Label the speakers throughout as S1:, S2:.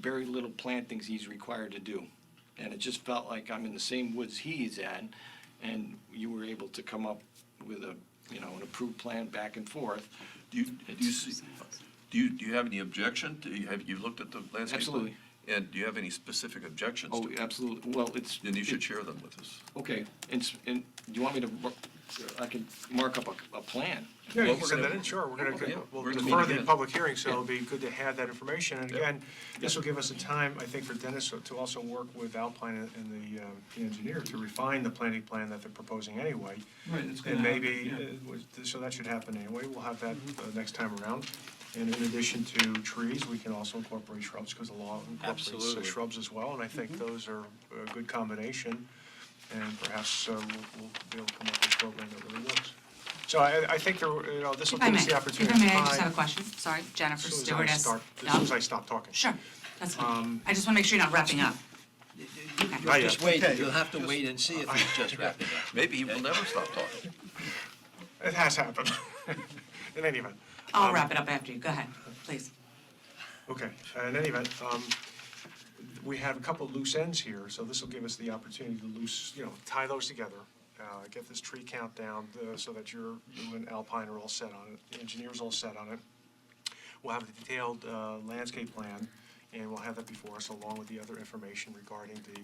S1: very little plantings he's required to do. And it just felt like I'm in the same woods he's in, and you were able to come up with a, you know, an approved plan back and forth.
S2: Do you, do you see, do you, do you have any objection? Do you, have you looked at the landscape? plan?
S1: Absolutely.
S2: And do you have any specific objections
S1: Oh,
S2: to it?
S1: absolutely, well, it's.
S2: Then you should share them with us.
S1: Okay, and, s- and do you want me to, mar- I can mark up a, a plan?
S3: Yeah,
S2: Well,
S3: you
S2: we're
S3: can send
S2: gonna-
S3: it in, sure, we're
S2: Okay,
S3: gonna, we'll
S2: we're gonna
S3: defer
S2: meet
S3: the
S2: again.
S3: public hearing, so it'll be good to have that information. And
S2: Yeah.
S3: again, this will give us a time, I think, for Dennis to- to also work with Alpine and- and the, um, the engineer to refine the planning plan that they're proposing anyway.
S4: Right, it's gonna
S3: And maybe,
S4: happen, yeah.
S3: uh, was- so that should happen anyway, we'll have that uh, next time around. And in addition to trees, we can also incorporate shrubs, because the law incorporates uh,
S5: Absolutely.
S3: shrubs as well. And I think those are a good combination, and perhaps uh, we'll we'll be able to come up with a program that really works. So I, I think, there were, you know, this will
S6: If I
S3: give
S6: may,
S3: us the
S6: if
S3: opportunity.
S6: I may,
S3: to
S6: I just
S3: find-
S6: have a question. Sorry, Jennifer
S3: As soon
S6: Stewart.
S3: as I
S6: S-
S3: stop, as
S6: No?
S3: soon as I stop talking.
S6: Sure, that's fine. I just want to make sure you're not wrapping up.
S3: Not
S5: Just
S3: yet.
S5: wait, you'll have to wait and see if he's just wrapping up.
S2: Maybe he will never stop talking.
S3: It has happened, in any event.
S6: I'll
S3: Um,
S6: wrap it up after you. Go ahead, please.
S3: Okay, in any event, um, we have a couple loose ends here, so this will give us the opportunity to loose, you know, tie those together, uh, get this tree count down uh, so that you're, you and Alpine are all set on it, the engineer's all set on it. We'll have the detailed uh, landscape plan, and we'll have that before us along with the other information regarding the,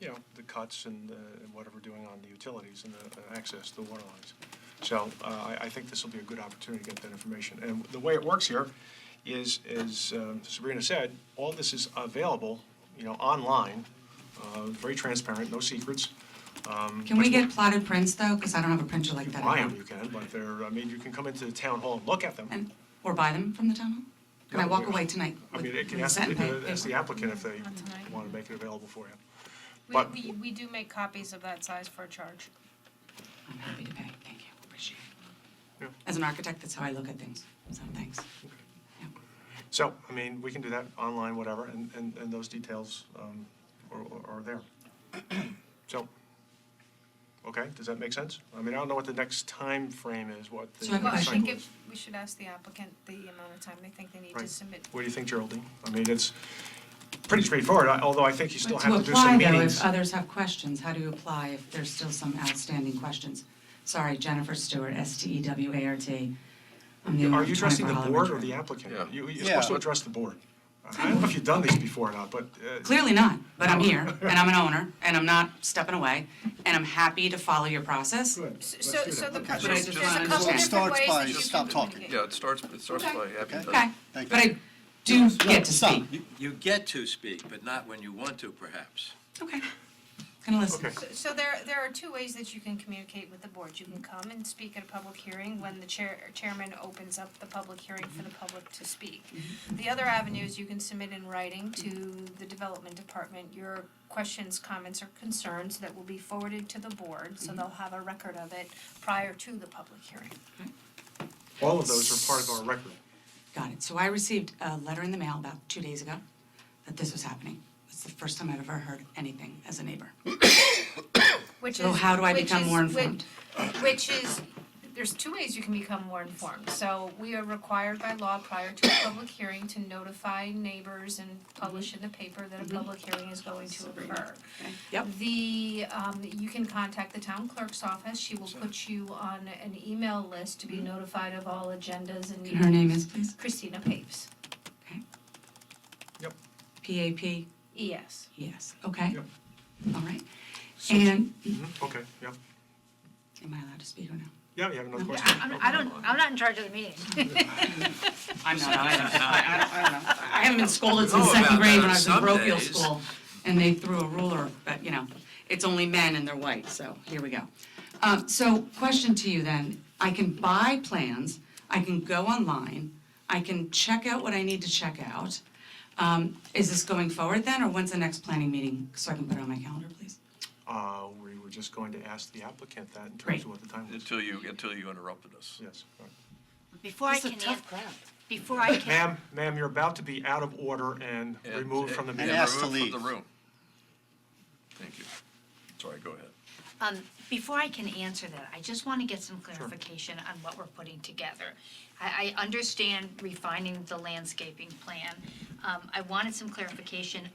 S3: you know, the cuts and uh, and whatever we're doing on the utilities and the uh, access to the water lines. So uh, I, I think this will be a good opportunity to get that information. And the way it works here is, as um, Sabrina said, all this is available, you know, online, uh, very transparent, no secrets. Um,
S6: Can we get plotted prints, though? Because I don't have a printer like
S3: You
S6: that
S3: buy them,
S6: at home.
S3: you can, but they're, I mean, you can come into the town hall and look at them.
S6: And, or buy them from the town hall? Can I
S3: No,
S6: walk
S3: we-
S6: away tonight
S3: I
S6: with
S3: mean, it can
S6: with a
S3: ask,
S6: set and pay?
S3: uh, ask the applicant if they
S7: Not tonight.
S3: want to make it available for you.
S7: We,
S3: But-
S7: we, we do make copies of that size for a charge.
S6: I'm happy to pay. Thank you. Appreciate
S3: Yeah.
S6: it. As an architect, that's how I look at things. So thanks. Yeah.
S3: So, I mean, we can do that online, whatever, and, and, and those details um, are, are there. So, okay, does that make sense? I mean, I don't know what the next time frame is, what the
S6: So I have a
S7: Well, I
S6: question.
S7: think
S3: cycle
S7: if,
S3: is.
S7: we should ask the applicant the amount of time they think they need to
S3: Right.
S7: submit.
S3: What do you think, Geraldine? I mean, it's pretty straightforward, I- although I think you still
S6: But
S3: have to do some
S6: To apply, though,
S3: meetings.
S6: if others have questions, how do you apply if there's still some outstanding questions? Sorry, Jennifer Stewart, E S-T-E-W-A-R-T. I'm the owner
S3: Are
S6: of
S3: you addressing the
S6: 24
S3: board or
S6: Hollywood
S3: the
S6: Drive.
S3: applicant?
S2: Yeah.
S3: You, you're
S5: Yeah.
S3: supposed to address the board. I don't know if you've done these before or not, but. uh,
S6: Clearly not, but I'm here, and I'm an owner, and I'm not stepping away, and I'm happy to follow your process.
S3: Good, let's do
S7: So,
S3: that.
S7: so the,
S3: Okay.
S7: co-
S6: But I just
S7: there's there's
S6: wanna
S7: a couple
S6: understand.
S7: different
S4: Starts
S7: ways
S4: by
S7: that you
S4: just
S7: can
S4: stop talking.
S7: communicate.
S2: Yeah, it starts, it starts by
S7: Okay.
S2: having.
S6: Okay,
S4: Thank
S6: but I
S4: you.
S6: do
S4: No,
S6: get to
S4: stop.
S6: speak.
S5: You, you get to speak, but not when you want to, perhaps.
S6: Okay, gonna listen.
S3: Okay.
S7: So- So there, there are two ways that you can communicate with the board. You can come and speak at a public hearing when the chair, chairman opens up the public hearing for the public to speak. The other avenue is you can submit in writing to the development department your questions, comments, or concerns that will be forwarded to the board, so they'll have a record of it prior to the public hearing.
S3: All of those are part of our record.
S6: Got it. So I received a letter in the mail about two days ago that this was happening. It's the first time I've ever heard anything as a neighbor.
S7: Which is
S6: So how do I
S7: which
S6: become
S7: is-
S6: more
S7: which-
S6: informed?
S7: Which is, there's two ways you can become more informed. So we are required by law prior to a public hearing to notify neighbors and publish in the paper that
S6: Mm-hmm.
S7: a public hearing is going to occur.
S6: Yep.
S7: The, um, you can contact the town clerk's office. She will put you on an email list to be notified of all agendas and
S6: Mm-hmm. And her name is, please?
S7: Christina Paves,
S6: Okay.
S3: Yep.
S6: P-A-P,
S7: ES.
S6: yes, okay,
S3: Yep.
S6: all right. And,
S3: Mm-hmm. Okay, yeah.
S6: am I allowed to speak or no?
S3: Yeah, you have another
S6: Okay,
S3: question?
S8: I'm- I don't, I'm not in charge of the meeting.
S6: I'm not, I don't, I don't, I don't know. I haven't been scolded since
S5: know
S6: second
S5: about
S6: grade
S5: that
S6: when I was in
S5: some
S6: parochial
S5: days.
S6: school, and they threw a ruler, but, you know, it's only men and they're white, so here we go. Um, so, question to you then, I can buy plans, I can go online, I can check out what I need to check out. Um, is this going forward then, or when's the next planning meeting, so I can put it on my calendar, please?
S3: Uh, we were just going to ask the applicant that in terms
S6: Great.
S3: of what the time was.
S2: Until you, until you interrupted us.
S3: Yes. all right.
S8: Before I can, an- before I can,
S3: Ma'am, ma'am, you're about to be out of order and
S2: And-
S3: removed from the
S2: and
S3: meeting.
S4: ask to
S2: removed
S4: leave.
S2: From the room. Thank you. Sorry, go ahead.
S8: Um, before I can answer that, I just want to get some clarification on what we're putting together. I, I understand refining the landscaping plan. Um, I wanted some clarification